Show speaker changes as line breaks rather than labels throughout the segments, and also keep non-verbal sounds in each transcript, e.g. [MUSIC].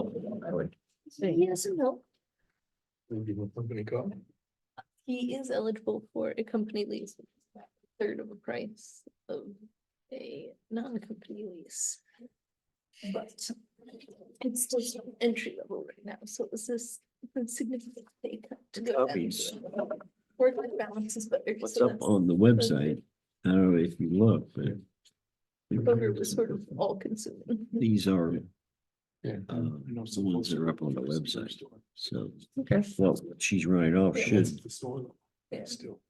No, I would.
Say yes or no.
Maybe with company call.
He is eligible for a company lease, which is about a third of the price of a non-company lease. But it's still sort of entry level right now, so this is a significant pay cut to go down.
Copies.
Work life balance is better. so
What's up
that's-
on the website? I don't know if you look, but.
Voter was sort of all consuming.
These are,
Yeah.
uh, the ones that are up on the website, so.
Okay.
Well, she's running off should,
Yeah.
Still.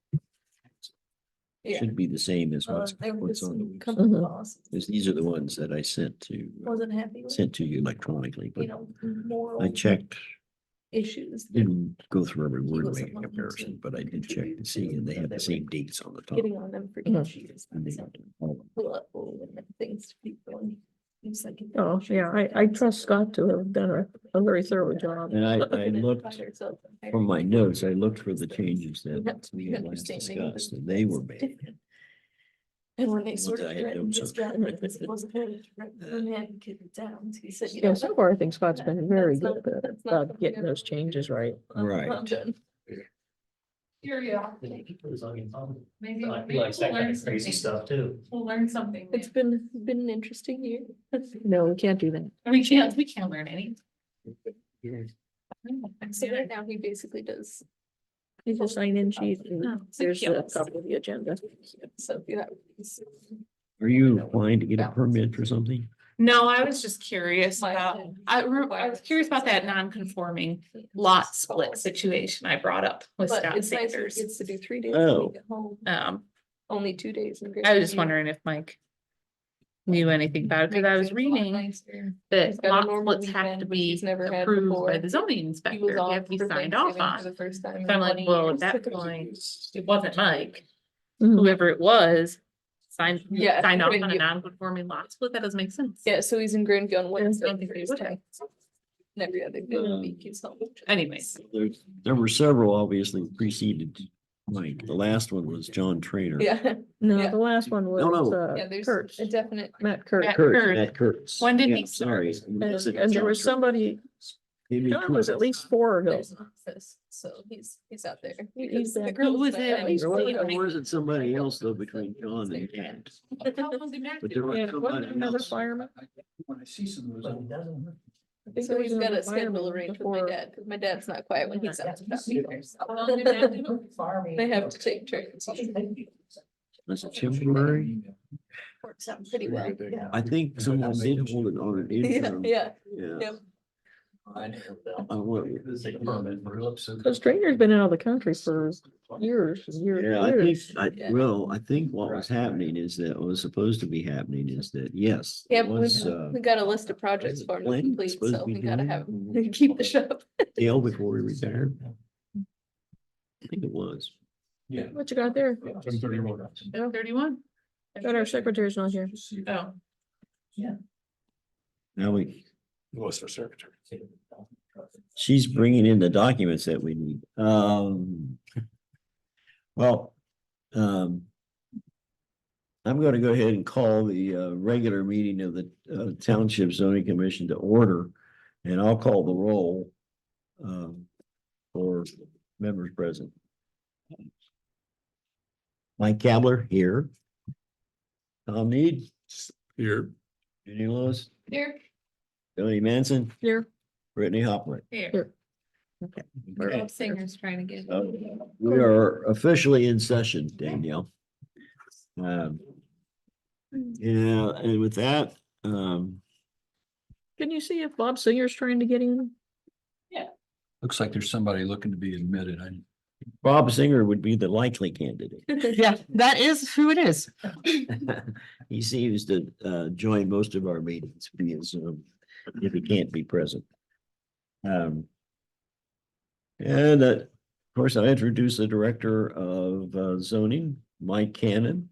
Yeah.
should be the same as
Uh,
what's,
There was
what's on the Uh-huh.
some
website.
company laws.
Because these are the ones that I sent to, uh,
Wasn't happy with,
sent to you electronically,
you
but
know, moral
I checked,
issues. that
didn't go through every
He
word
wasn't
making
wanting to
comparison, but I did check to see, and they had the same dates on the top.
Getting on them for each year.
Uh-huh. And they- all-
Oh, Things to be going. It's like-
Oh, yeah, I, I trust Scott to have done a, a very thorough job.
And I, I
Looking at
looked
fire, so-
from my notes, I looked for the changes that we had last
Understanding of
discussed, and they were made.
different. And when they
Once
sort of
I had
threatened
notes
his
on-
relatives, it wasn't her, it threatened the man getting down, he said, you know.
Yeah, so far I think Scott's been very good about-
That's not
about getting those
something
changes right.
I'm-
Right.
I'm done.
Maybe,
Maybe
I
maybe
feel like that
we'll
kind
learn
of crazy
something.
stuff too.
We'll learn something.
It's been, been an interesting year.
No, we can't do that.
We can't, we can't learn anything.
So right now he basically does,
He's a sign-in sheet and
Oh, it's a
there's the
kiosk.
top of the agenda.
so if you have. these-
Are you applying to get a permit for something?
No, I was just curious
Why
about,
then?
I remember, I was curious about that non-conforming lot split situation I brought up with
But
Scott
it's nice, he
Sanders.
gets to do three days.
Oh.
at home,
Um,
Only two days. in Grand
I was just
Canyon.
wondering if Mike knew anything about it, because I
Makes
was
it a lot
reading
nicer. He's
that
got a
lot
normal
splits have
weekend,
to
which
be
he's never had
approved by
before.
the zoning
He
inspector,
was
they have
off
to be
for
signed off
Thanksgiving for
on.
the first time.
So
in
I'm like,
20
well, at
years. [LAUGHS]
that point, it wasn't Mike,
Mhm.
whoever it was, signed,
Mm-hmm. Yeah,
signed off
couldn't
on a
you-
non-conforming lot split, that doesn't make sense.
Yeah, so he's in Grand Gun Wednesday.
don't think they would have.
Every other
Yeah.
good week, he's home.
Um, Anyways.
There, there were several obviously preceded Mike. The last one was John Trainer.
Yeah, [LAUGHS]
No,
Yeah.
the last one was,
No, no.
yeah,
uh,
there's
Kurtz,
a definite.
Matt Kurtz.
Matt
Kurtz,
Kurtz.
Matt Kurtz.
When did
Yeah,
he start?
Sorry.
And and there was somebody, John was at least four of
There's
those.
an office, so he's, he's out there.
He's
because the
back.
girl
Who
was
was
like,
it?
"Oh, he's
Or
really
Or
nice."
was it somebody else though between John and Ed? But there was
Yeah, wasn't
somebody
another
else.
fireman?
When I see some of those.
I think
So
there
he's
was
got
another
a schedule
fireman
arranged with my
before-
dad, because my dad's not quiet when he's out. about either, so They
They
have to take turns.
Was it temporary?
Works out pretty well.
I think someone did hold it on an
Yeah,
interim.
yeah.
Yeah.
Yep.
I went-
Because Trainer's been out of the country for years and years.
Yeah, I
and
think,
years.
I, well, I think what was happening is that, what was supposed to be happening is that, yes.
Yeah,
it was,
we,
uh,
we got a list of
was
projects
it
for him to
Glenn
complete,
supposed to
so
be
we gotta
doing
have,
it?
[LAUGHS] keep the shop.
Dale before he retired. I think it was.
Yeah.
What you got there?
From thirty one.
Thirty-one.
Got our secretary's not here.
Oh,
Now we,
Was her secretary.
she's bringing in the documents that we need. Um. Well, um. I'm going to go ahead and call the uh regular meeting of the uh, Township Zoning Commission to order. And I'll call the roll. Um, for members present. Mike Kavler here. Tom Need,
Here.
Jenny Lewis,
here,
Tony Manson,
Here.
Brittany Hopper.
here.
Here.
Okay.
Bob Singer's trying to get.
So, We are officially in session, Danielle. Um, Yeah, and with that, um,
Can you see if Bob Singer's trying to get in?
Looks like there's somebody looking to be admitted. I.
Bob Singer would be the likely candidate.
Yeah, that is who it is.
[LAUGHS] He seems to uh join most of our meetings via Zoom if he can't be present. Um. And uh, of course, I introduce the Director of uh, Zoning, Mike Cannon.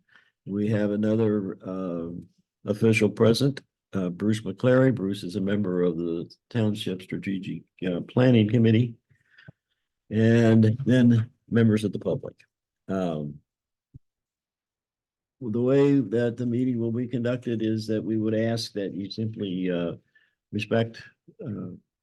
We have another um official present, uh Bruce McClary. Bruce is a member of the Township Strategic uh, Planning Committee. And then members of the public. Um the way that the meeting will be conducted is that we would ask that you simply uh respect, uh,